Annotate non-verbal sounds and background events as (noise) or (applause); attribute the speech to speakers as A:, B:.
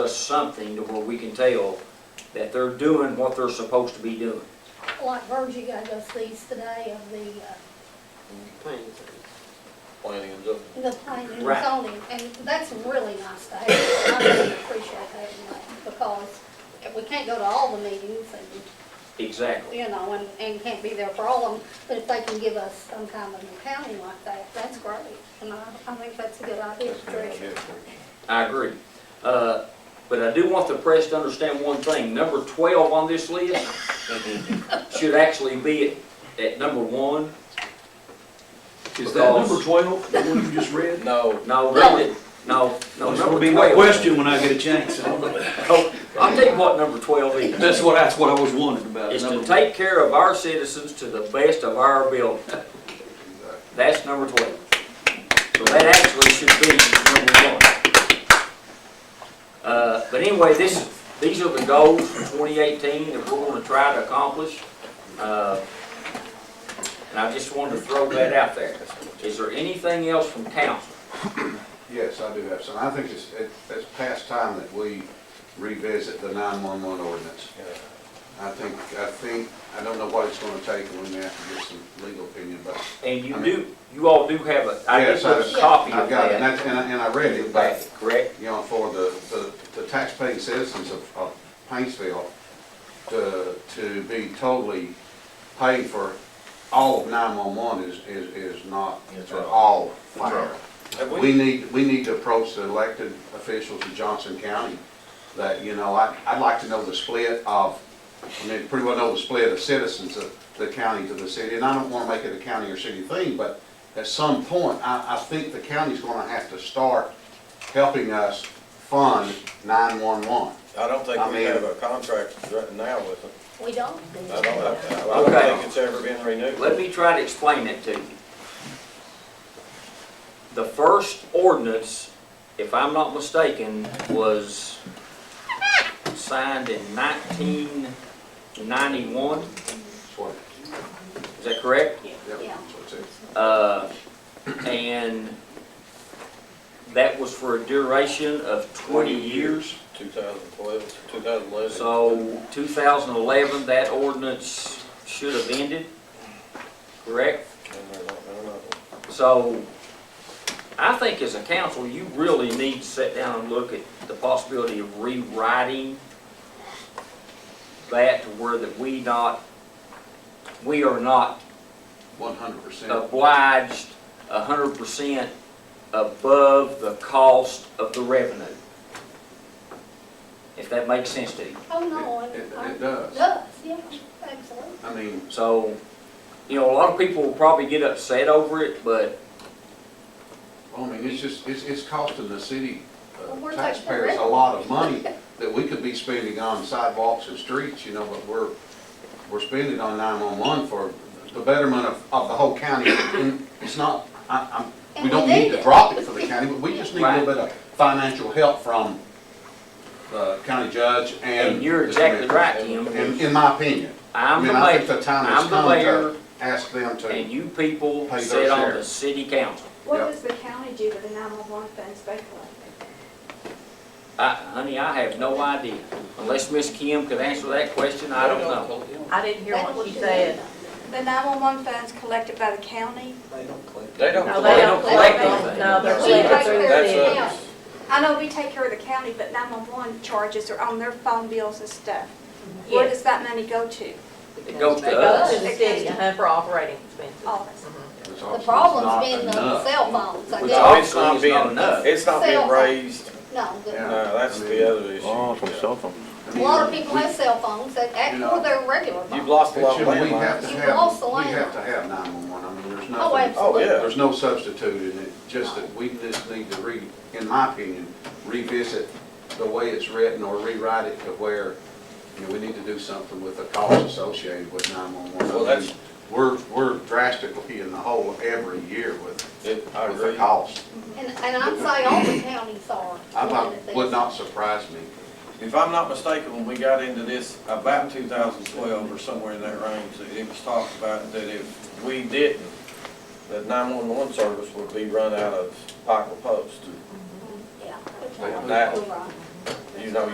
A: us something to where we can tell that they're doing what they're supposed to be doing.
B: Like Virgie got us these today of the, uh,
C: planning and zoning.
B: uh, the planning and
A: Right.
B: zoning, and that's really nice to have. I really appreciate having that, because if we can't go to all the meetings and,
A: Exactly.
B: you know, and, and can't be there for all of them, but if they can give us some kind of accounting like that, that's great. And I, I think that's a good idea,
C: That's a good
B: Tricia.
C: idea for you.
A: I agree. Uh, But I do want the press to understand one thing. Number 12 on this list should actually be at, at number one.
D: Is that number
A: Because-
D: twelve, the one you just read?
C: No,
A: No, really, no, no,
D: There's
A: number
D: gonna be no
A: 12.
D: question when I get a chance.
A: Oh, I'll tell you what number 12 is.
D: That's what, that's what I was wondering about.
A: Is to
D: number-
A: take care of our citizens to the best of our ability. That's number 12. So that actually should be number one. Uh, But anyway, this, these are the goals for 2018 that we're going to try to accomplish. Uh, And I just wanted to throw that out there. Is there anything else from council?
E: Yes, I do have some. I think it's, it- it's past time that we revisit the 911 ordinance. I think, I think, I don't know what it's going to take, and we may have to get some legal opinion, but
A: And you do, you all do have a, I did
E: Yes, I-
A: put a copy
E: I've
A: of
E: got it, and
A: that.
E: that's- and I, and I read it, but,
A: Correct?
E: you know, for the, the the taxpaying citizens of, of Paintsville to, to be totally paid for all of 911 is, is, is not,
C: That's
E: for
C: right.
E: all fire.
C: have
E: We
C: we,
E: need, we need to approach the elected officials in Johnson County that, you know, I, I'd like to know the split of, I mean, pretty well know the split of citizens of the county to the city. And I don't wanna make it a county or city thing, but at some point, I, I think the county's gonna have to start helping us fund nine-one-one.
C: I don't think
E: I
C: we
E: mean-
C: have a contract right now with them.
B: We don't.
C: I don't, I- I
A: Okay.
C: don't think it's ever been renewed.
A: Let me try to explain it to you. The first ordinance, if I'm not mistaken, was signed in nineteen ninety-one,
E: That's what,
A: is that correct?
E: yeah,
B: Yeah.
E: that's what it says.
A: Uh, and that was for a duration of twenty years.
C: 2012, 2011.
A: So 2011, that ordinance should have ended, correct?
C: And they're not- they're not-
A: So I think as a council, you really need to sit down and look at the possibility of rewriting that to where that we not, we are not
E: One hundred percent.
A: Oh. obliged 100% above the cost of the revenue. If that makes sense to you.
B: Oh, no,
E: It, it-
B: I,
E: it
B: I,
E: does.
B: does, yeah, absolutely.
E: I mean,
A: So, you know, a lot of people will probably get upset over it, but
E: I mean, it's just, it's, it's costing the city uh,
B: Well, we're taking the
E: taxpayers a
B: risk.
E: lot
B: (laughs)
E: of money that we could be spending on sidewalks and streets, you know, but we're, we're spending on nine-one-one for the betterment of, of the whole county. And It's not, I, I'm,
B: And
E: we
B: we
E: don't
B: need
E: need to
B: it.
E: drop it for the county, but we just need a little
A: Right.
E: bit of financial help from the county judge and.
A: and you're
E: the
A: exactly
E: commissioner.
A: right, Tim.
E: In, in my opinion. I
A: I'm the
E: mean, I think
A: mayor,
E: the time has
A: I'm the
E: come
A: mayor,
E: to ask them to.
A: and you people
E: Pay their
A: sit on
E: share.
A: the city council.
F: What
E: Yep.
F: does the county do with the 911 funds back
A: I, honey, I have no idea. Unless Miss Kim could answer that question, I don't know.
G: I didn't hear what she said.
F: The 911 funds collected by the county?
C: They don't.
G: No, they don't
C: collect.
G: collect them. No, they're
B: She
G: collected
B: takes
G: through
B: care of
C: That's
B: it
G: the,
C: a-
B: now.
F: I know we take care of the county, but 911 charges are on their phone bills and stuff. Where
G: yes.
F: does that money go to?
A: It goes
G: They
A: to
G: go
A: us.
G: to the city, uh-huh, for operating expenses. Mm-hmm.
F: All of us.
E: It's
B: The
E: obviously not
B: problem's been the
E: enough.
B: cell phones, I
A: Which
B: guess.
C: It's not being,
A: enough.
C: it's not being
B: Cell phone.
C: raised,
B: No, the-
E: Yeah.
C: no, that's the other issue.
H: Oh, from cell phones.
E: I
B: a
E: mean,
B: lot of people
E: we-
B: have cell phones that act
E: You know,
B: with their regular
C: You've
B: phone.
C: lost a
E: But
C: lot
E: should
C: of
E: we have to
C: landlines.
B: You
E: have,
B: lost the
E: we have
B: landline.
E: to have nine-one-one, I mean, there's
B: Oh,
E: nothing,
C: Oh,
B: absolutely.
C: yeah.
E: there's no substitute in it, just that we just need to re, in my opinion, revisit the way it's written or rewrite it to where, you know, we need to do something with the cost associated with
C: Well,
E: nine-one-one. I
C: that's-
E: mean, we're, we're drastically in the hole every year with,
C: It- I
E: with the
C: agree.
E: cost.
B: And, and I'd say all the counties are.
E: I
B: looking
E: thought,
B: at
E: would
B: this.
E: not surprise me.
C: If I'm not mistaken, when we got into this about 2012 or somewhere in that range, that it was talked about that if we didn't, that 911 service would be run out of Pikeville Post.
B: Yeah.
C: That-
B: You're right.
C: you know,